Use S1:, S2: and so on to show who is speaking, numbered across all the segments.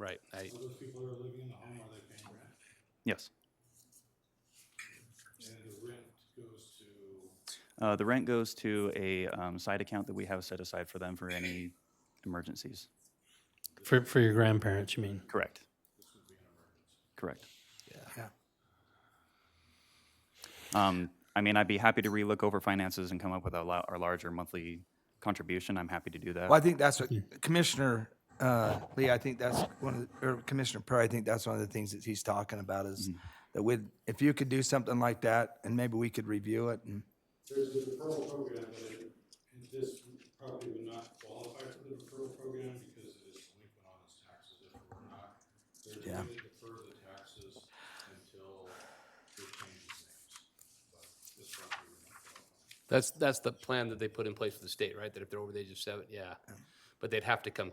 S1: Right, I,
S2: So those people who are living in the home, are they paying rent?
S1: yes.
S2: And the rent goes to,
S1: Uh, the rent goes to a, um, side account that we have set aside for them for any emergencies.
S3: For, for your grandparents, you mean?
S1: Correct. Correct.
S3: Yeah.
S1: Um, I mean, I'd be happy to relook over finances and come up with a lo- our larger monthly contribution. I'm happy to do that.
S4: Well, I think that's what Commissioner uh, Lee, I think that's one of, the- or Commissioner Perry, I think that's one of the things that he's talking about is that with, if you could do something like that, and maybe we could review it and,
S2: there's the referral program, but it- and this probably would not qualify for the referral program because it is delinquent on its taxes if it were not. They're
S4: Yeah.
S2: going to defer the taxes until it changes names, but this property would not qualify.
S5: That's, that's the plan that they put in place for the state, right? That if they're over the age of seven, yeah. But they'd have to come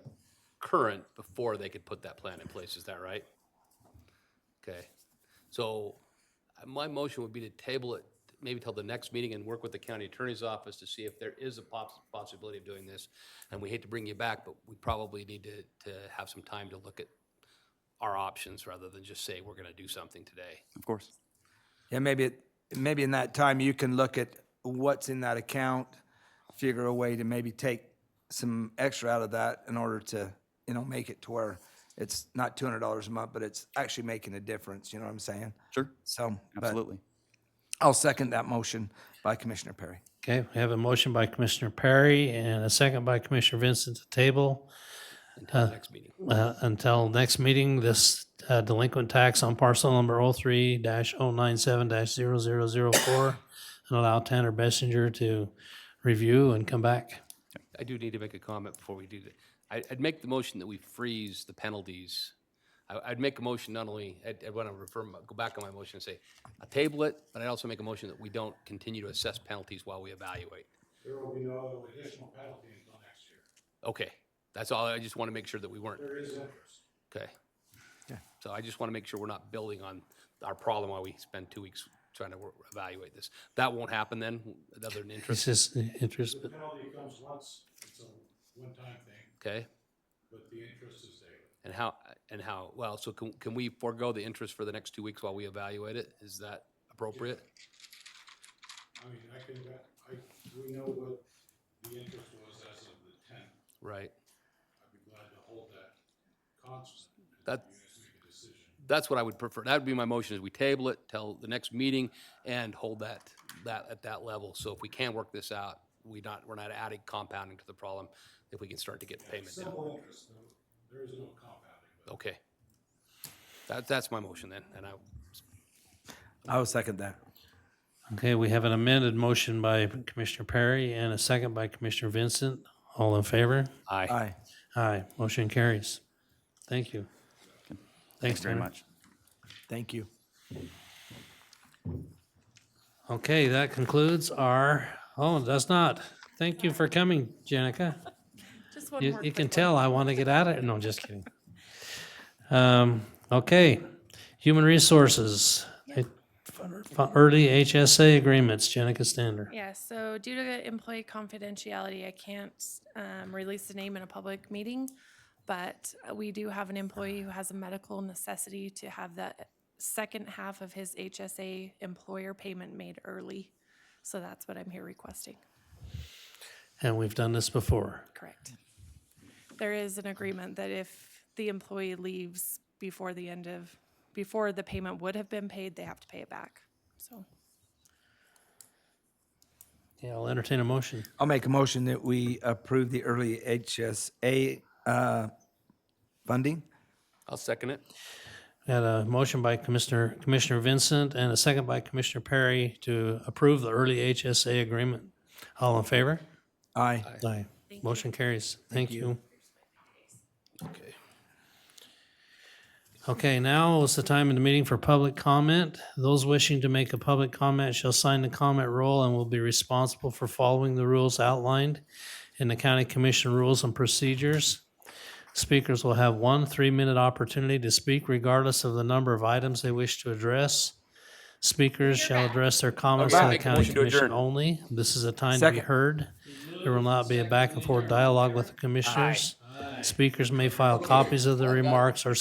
S5: current before they could put that plan in place, is that right? Okay, so uh, my motion would be to table it maybe till the next meeting and work with the county attorney's office to see if there is a poss- possibility of doing this. And we hate to bring you back, but we probably need to, to have some time to look at our options rather than just say, we're gonna do something today.
S1: Of course.
S4: yeah, maybe, it- maybe in that time you can look at what's in that account, figure a way to maybe take some extra out of that in order to, you know, make it to where it's not two hundred dollars a month, but it's actually making a difference, you know what I'm saying?
S1: Sure.
S4: So, but
S1: Absolutely.
S4: I'll second that motion by Commissioner Perry.
S3: Okay, we have a motion by Commissioner Perry and a second by Commissioner Vincent to table
S5: Until the next meeting.
S3: uh, until next meeting, this uh, delinquent tax on parcel number 03-097-0004 and allow Tanner Bessinger to review and come back.
S5: I do need to make a comment before we do that. I, I'd make the motion that we freeze the penalties. I, I'd make a motion not only, I'd, I'd want to refer, my- go back on my motion and say, I table it, but I'd also make a motion that we don't continue to assess penalties while we evaluate.
S2: There will be no additional penalty until next year.
S5: Okay, that's all. I just want to make sure that we weren't,
S2: There is interest.
S5: okay? So I just want to make sure we're not building on our problem while we spend two weeks trying to wor- evaluate this. That won't happen then, other than interest,
S3: This is interest,
S2: The penalty comes once, it's a one-time thing,
S5: okay?
S2: but the interest is there.
S5: And how, and how, well, so can, can we forego the interest for the next two weeks while we evaluate it? Is that appropriate?
S2: I mean, I can, I, we know what the interest was as of the tenth.
S5: Right.
S2: I'd be glad to hold that constant. and
S5: That,
S2: You guys make a decision.
S5: that's what I would prefer. That would be my motion, is we table it till the next meeting and hold that, that, at that level. So if we can work this out, we not, we're not adding compounding to the problem, if we can start to get payment down.
S2: Simple interest, no, there is no compounding, but
S5: Okay. That, that's my motion then, and I,
S4: I will second that.
S3: okay, we have an amended motion by Commissioner Perry and a second by Commissioner Vincent. All in favor?
S5: aye.
S4: Aye.
S3: Aye, motion carries. Thank you. Thanks
S1: Thanks very
S3: Tanner.
S1: much.
S4: Thank you.
S3: Okay, that concludes our, oh, that's not. Thank you for coming, Jenica.
S6: Just one
S3: You,
S6: more
S3: you
S6: quick
S3: can
S6: one.
S3: tell I want to get out of it. No, I'm just kidding. Um, okay, human resources. Fu- Early HSA agreements, Jenica Stander.
S6: Yeah, so due to the employee confidentiality, I can't um, release the name in a public meeting, but we do have an employee who has a medical necessity to have the second half of his HSA employer payment made early. So that's what I'm here requesting.
S3: And we've done this before.
S6: Correct. There is an agreement that if the employee leaves before the end of, before the payment would have been paid, they have to pay it back. So
S3: Yeah, I'll entertain a motion.
S4: I'll make a motion that we approve the early HSA uh, funding.
S5: I'll second it.
S3: We Had a motion by Commissioner, Commissioner Vincent and a second by Commissioner Perry to approve the early HSA agreement. All in favor?
S4: Aye.
S3: Aye. Motion carries. Thank you.
S5: Okay.
S3: Okay, now is the time in the meeting for public comment. Those wishing to make a public comment shall sign the comment roll and will be responsible for following the rules outlined in the County Commission Rules and Procedures. Speakers will have one three-minute opportunity to speak regardless of the number of items they wish to address. Speakers shall address their comments to the
S5: Make a
S3: county
S5: motion to
S3: commission
S5: adjourn.
S3: only. This is a time to be
S4: Second.
S3: heard. There will not be a back and forth dialogue with the commissioners. Speakers may file copies of the remarks or